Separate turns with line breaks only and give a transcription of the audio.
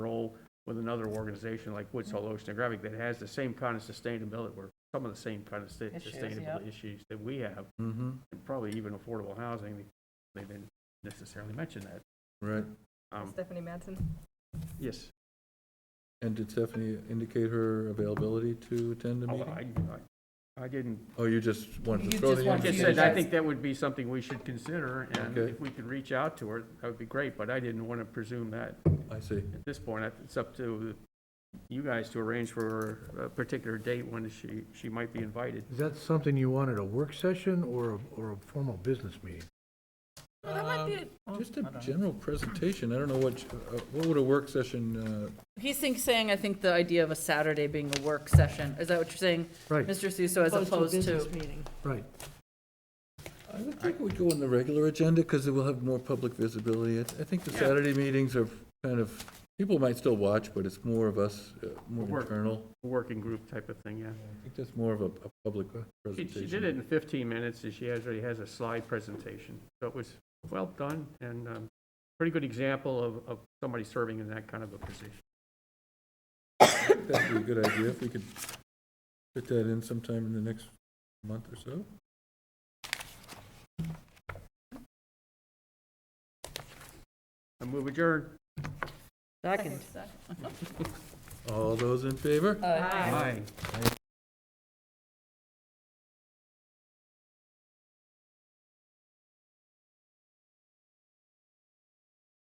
with another organization like Woods Hole Oceanographic that has the same kind of sustainability, or some of the same kind of sta-
Issues,
sustainable
yep.
issues that we have,
Mm-hmm,
and probably even affordable housing, they didn't necessarily mention that.
right.
Um,
Stephanie Madsen.
Yes,
And did Stephanie indicate her availability to attend the
I,
meeting?
Oh, I- I didn't,
Oh, you just wanted to
You
throw
just
the
like
wanted
I
to-
invitation?
said, I think that would be something we should consider, and
Okay.
if we could reach out to her, that would be great, but I didn't want to presume that
I see,
at this point. I- It's up to you guys to arrange for a particular date when she, she might be invited.
Is that something you wanted, a work session or, a- or a formal business meeting?
That might be,
Oh,
just a general presentation, I don't know what, uh, what would a work session,
He's think, saying, I think the idea of a Saturday being a work session, is that what you're saying,
Right,
Mr. Suso, as opposed to?
right.
uh, I would think would go on the regular agenda, because it will have more public visibility. I, I think the Saturday meetings are kind of, people might still watch, but it's more of us, uh, more
Work.
internal.
Working group type of thing, yeah.
I think that's more of a, a public uh,
She,
presentation.
she did it in 15 minutes, and she has- already has a slide presentation. So it was well done, and um, pretty good example of, of somebody serving in that kind of a position.
That'd be a good idea, if we could fit that in sometime in the next month or so.
I move adjourned.
Second.
All those in favor?
Uh,
Aye.